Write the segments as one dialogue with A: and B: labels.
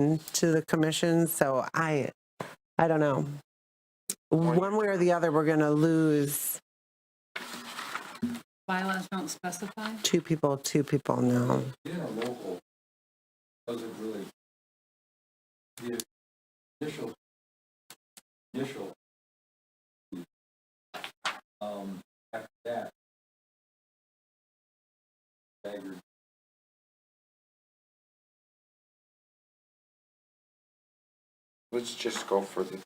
A: into the commission, so I, I don't know. One way or the other, we're going to lose
B: bylaws don't specify?
A: two people, two people now.
C: Being a local doesn't really, the initial, initial, um, after that, staggered.
D: Let's just go for the,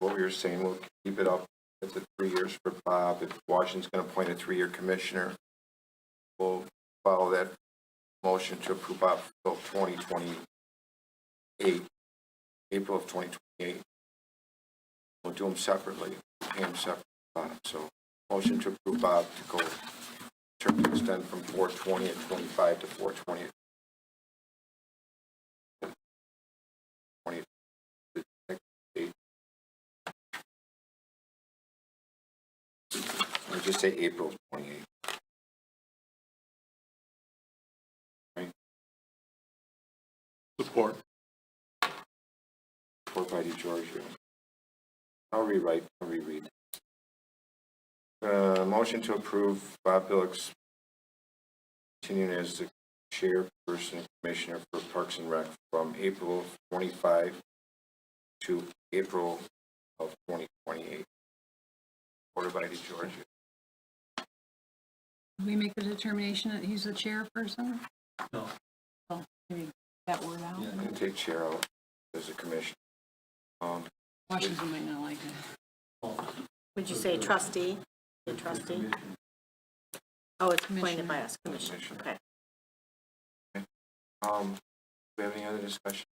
D: what we were saying, we'll keep it up at the three years for Bob. If Washington's gonna appoint a three-year commissioner, we'll follow that motion to approve Bob till twenty twenty-eight, April of twenty twenty-eight. We'll do them separately, pay them separate, Bob. so motion to approve Bob to go, term to extend from four twenty at twenty-five to four twenty. Twenty, the next date. Or just say April twenty-eighth.
E: Support.
D: Or by DeGiorgio. I'll rewrite, I'll reread. Uh, motion to approve Bob Billick's continuing as the chairperson and commissioner for Parks and Rec from April twenty-five to April of twenty twenty-eight. Order by DeGiorgio.
B: Did we make the determination that he's the chairperson?
C: No.
B: Oh, maybe that word out.
D: I'm gonna take chair out as a commissioner. Um,
B: Washington might not like it.
F: Would you say trustee? The trustee? Oh, it's appointed by us, commission,
D: Commissioner.
F: okay.
D: Um, do we have any other discussion?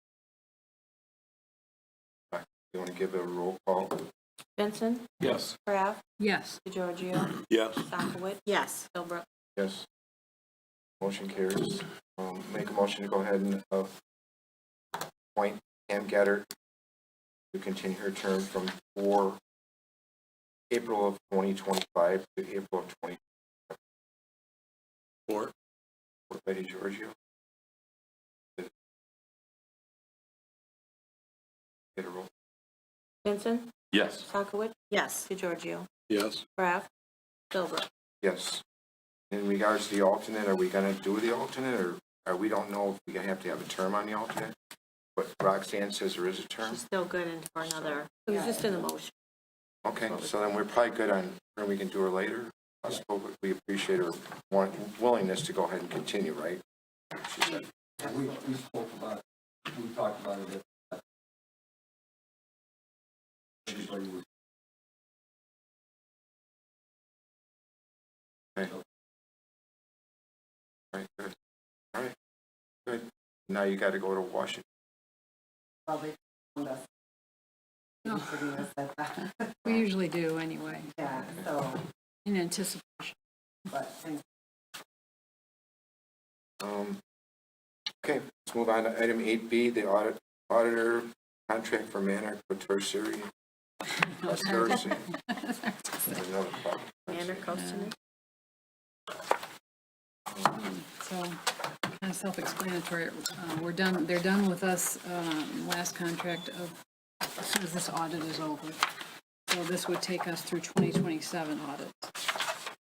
D: Alright, You want to give a roll call?
G: Benson,
C: Yes.
G: Craft,
B: Yes,
G: DeGiorgio,
E: Yes.
G: Sockowitz,
F: Yes,
G: Philbrook.
D: Yes. Motion carries. Um, make a motion to go ahead and, uh, appoint Pam Gaddard to continue her term from four April of twenty twenty-five to April of twenty
E: Support.
D: four. Betty Giorgio. Get a roll.
G: Benson,
E: Yes.
G: Sockowitz,
F: yes.
G: DeGiorgio,
E: Yes.
G: Craft, Philbrook.
D: Yes. In regards to the alternate, are we gonna do the alternate, or, or we don't know if we gonna have to have a term on the alternate? But Roxanne says there is a term?
F: She's still good and for another, it was just in the motion.
D: Okay, so then we're probably good on, or we can do her later. I suppose we appreciate her want, willingness to go ahead and continue, right? She said,
C: We, we spoke about, it. we talked about it. at- Everybody was
D: all right, good, all right, good. Now you gotta go to Washington.
H: probably found us.
B: No.
H: They shouldn't have said that.
B: we usually do anyway,
H: Yeah, so,
B: in anticipation.
H: but, and
D: Um, okay, let's move on to item eight B, the audit, auditor contract for Manor Quaterciri.
B: Oh,
D: Quaterciri, another problem.
F: Andrew Costigan?
B: So, kind of self-explanatory, Uh, we're done, they're done with us um, last contract of, as soon as this audit is over. So this would take us through 2027 audit.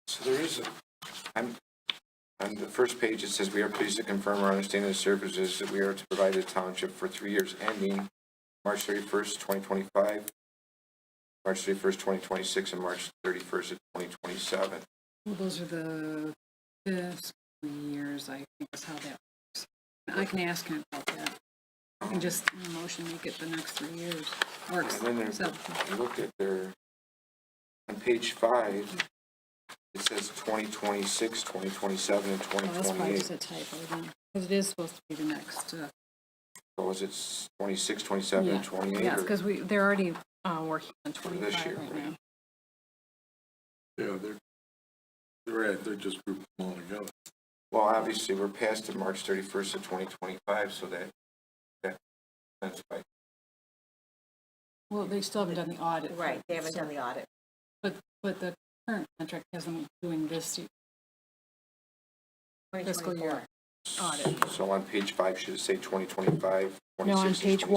D: So there is, a- I'm, on the first page, it says, "We are pleased to confirm our understanding of the services that we are to provide to the township for three years ending March thirty-first, twenty twenty-five, March thirty-first, twenty twenty-six, and March thirty-first of twenty twenty-seven.
B: Well, those are the fiscal years, I think is how that works. I can ask him about that. I can just in motion make it the next three years. Works.
D: And then there's-
B: So, oh,
D: Look at their, on page five, it says 2026, 2027, and
B: well,
D: twenty
B: that's probably just
D: twenty-eight.
B: a typo then, because it is supposed to be the next. uh,
D: So is it twenty-six, twenty-seven,
B: yeah.
D: and twenty-eight?
B: Yes, because we, they're already uh, working on
D: this
B: 25
D: year,
B: right
D: right?
B: now.
E: Yeah, they're, they're, right, they're just grouped them all together.
D: Well, obviously, we're past the March thirty-first of twenty twenty-five, so that, that, that's right.
B: Well, they still haven't done the audit.
F: Right, they haven't done the audit.
B: But, but the current contract has them doing this year- fiscal year.
D: audit.
B: So on page five, should it say 2025, 26,
D: No, on page
B: 27?